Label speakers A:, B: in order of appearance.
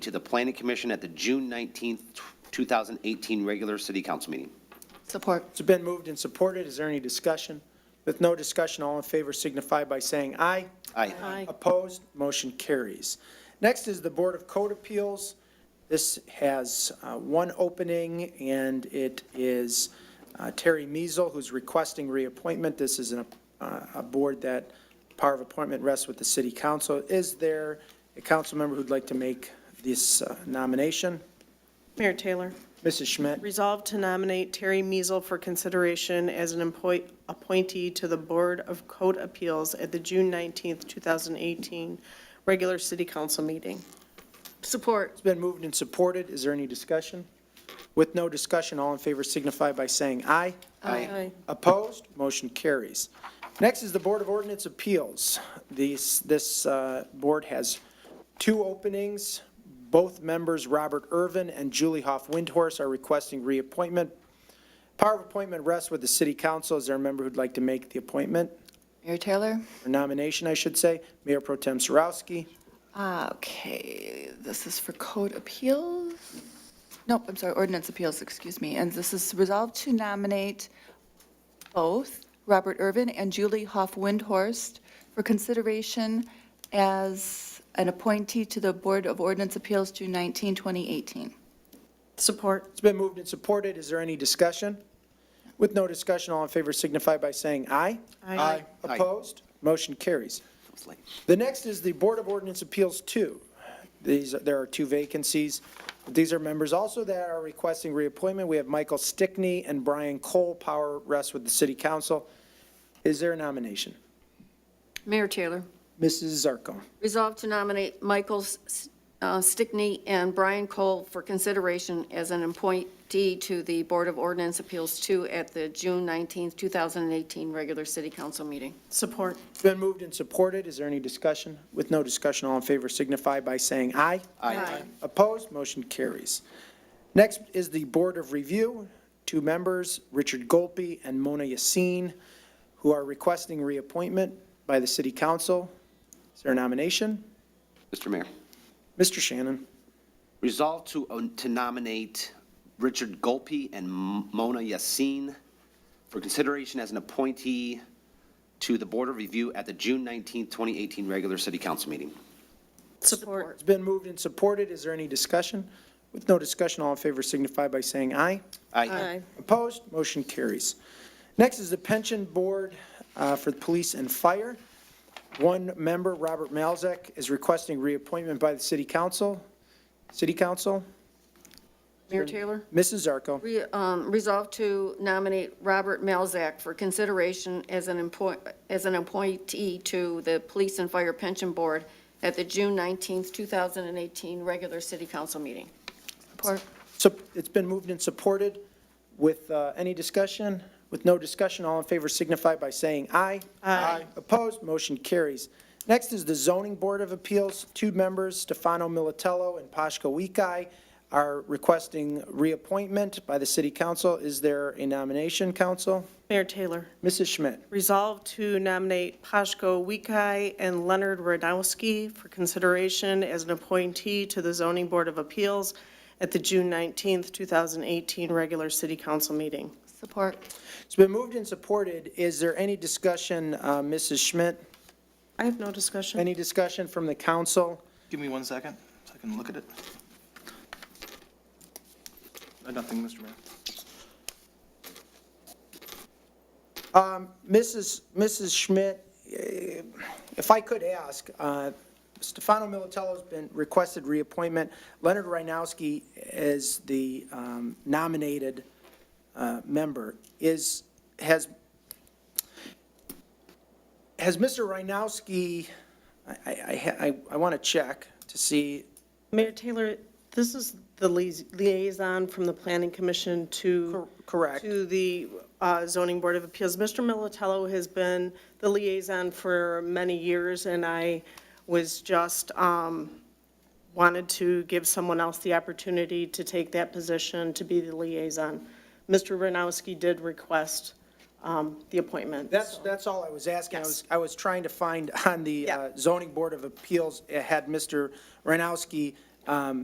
A: to the planning commission at the June 19th, 2018 regular city council meeting.
B: Support.
C: It's been moved and supported. Is there any discussion? With no discussion, all in favor signify by saying aye.
A: Aye.
B: Aye.
C: Opposed, motion carries. Next is the Board of Code Appeals. This has uh, one opening, and it is uh, Terry Meisel, who's requesting reappointment. This is an, uh, a board that power of appointment rests with the city council. Is there a council member who'd like to make this uh, nomination?
D: Mayor Taylor,
C: Mrs. Schmidt?
D: resolved to nominate Terry Meisel for consideration as an employ- appointee to the Board of Code Appeals at the June 19th, 2018 regular city council meeting.
B: Support.
C: It's been moved and supported. Is there any discussion? With no discussion, all in favor signify by saying aye.
B: Aye.
C: Opposed? Motion carries. Next is the Board of Ordinance Appeals. These, this uh, board has two openings. Both members, Robert Irvin and Julie Hoff Windhorse, are requesting reappointment. Power of appointment rests with the city council. Is there a member who'd like to make the appointment,
B: Mayor Taylor?
C: or nomination, I should say? Mayor Pro Tem Sarowski.
B: Ah, Okay, this is for code appeals? Nope, I'm sorry, ordinance appeals, excuse me. And this is resolved to nominate both Robert Irvin and Julie Hoff Windhorst for consideration as an appointee to the Board of Ordinance Appeals, June 19, 2018.
D: Support.
C: It's been moved and supported. Is there any discussion? With no discussion, all in favor signify by saying aye.
D: Aye. Aye.
A: Aye.
C: Opposed? Motion carries.
A: That was late.
C: The next is the Board of Ordinance Appeals 2. These, there are two vacancies. These are members also that are requesting reappointment. We have Michael Stickney and Brian Cole. Power rests with the City Council. Is there a nomination?
E: Mayor Taylor,
C: Mrs. Zarko.
E: resolved to nominate Michael S- uh, Stickney and Brian Cole for consideration as an appointee to the Board of Ordinance Appeals 2 at the June 19th, 2018 regular city council meeting.
D: Support.
C: It's been moved and supported. Is there any discussion? With no discussion, all in favor signify by saying aye.
A: Aye.
C: Opposed, motion carries. Next is the Board of Review, two members, Richard Golpe and Mona Yassin, who are requesting reappointment by the City Council. Is there a nomination?
A: Mr. Mayor,
C: Mr. Shannon,
A: resolve to, uh, to nominate Richard Golpe and Mona Yassin for consideration as an appointee to the Board of Review at the June 19th, 2018 regular city council meeting.
D: Support.
C: it's been moved and supported. Is there any discussion? With no discussion, all in favor signify by saying aye.
A: Aye.
C: Opposed, motion carries. Next is the Pension Board uh, for the Police and Fire. One member, Robert Malzek, is requesting reappointment by the City Council. City Council,
E: Mayor Taylor,
C: Mrs. Zarko.
E: re- um, resolved to nominate Robert Malzak for consideration as an employ, as an appointee to the Police and Fire Pension Board at the June 19th, 2018 regular city council meeting.
B: Support.
C: So it's been moved and supported with uh, any discussion? With no discussion, all in favor signify by saying aye. Aye. Opposed, motion carries. Next is the Zoning Board of Appeals. Two members, Stefano Militello and Pashka Weekai, are requesting reappointment by the City Council. Is there a nomination, Council?
D: Mayor Taylor,
C: Mrs. Schmidt.
D: resolved to nominate Pashko Weekai and Leonard Radowski for consideration as an appointee to the Zoning Board of Appeals at the June 19th, 2018 regular city council meeting.
B: Support.
C: It's been moved and supported. Is there any discussion, uh, Mrs. Schmidt?
D: I have no discussion.
C: Any discussion from the council?
F: Give me one second, so I can look at it. Uh, Nothing, Mr. Mayor.
C: Mrs. Mrs. Schmidt, eh, if I could ask, uh, Stefano Militello's been requested reappointment. Leonard Reinowski is the um, nominated uh, member. Is, has, has Mr. Reinowski, I, I, I- I want to check to see,
D: Mayor Taylor, this is the lias- liaison from the Planning Commission to.
C: Cor- correct.
D: To the uh, zoning board of appeals. Mr. Militello has been the liaison for many years, and I was just, um, wanted to give someone else the opportunity to take that position, to be the liaison. Mr. Renowski did request um, the appointment.
C: that's, that's all I was asking. I was, I was trying to find on the uh,
D: Yeah.
C: zoning board of appeals, it had Mr. Reinowski um,